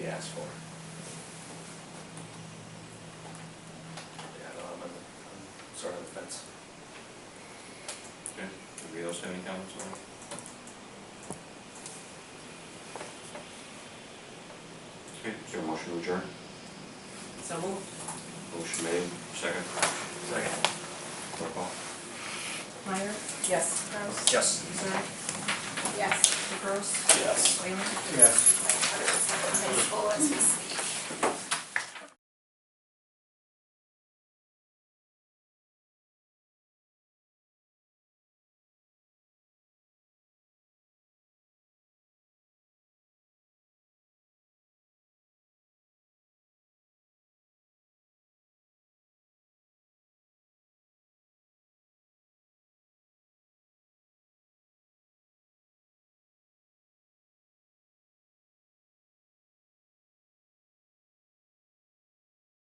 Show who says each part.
Speaker 1: asked for. Yeah, no, I'm, on- I'm sort of on the fence.
Speaker 2: Okay, anybody else have any comments on it? Okay, is there a motion to adjourn?
Speaker 3: So moved.
Speaker 2: Motion made, second,
Speaker 1: Second.
Speaker 2: roll call.
Speaker 3: Meyer? Yes. Kraus?
Speaker 1: Yes.
Speaker 3: Zach?
Speaker 4: Yes.
Speaker 3: DeBrusk?
Speaker 1: Yes.
Speaker 3: Whalen?
Speaker 1: Yes.
Speaker 4: High school.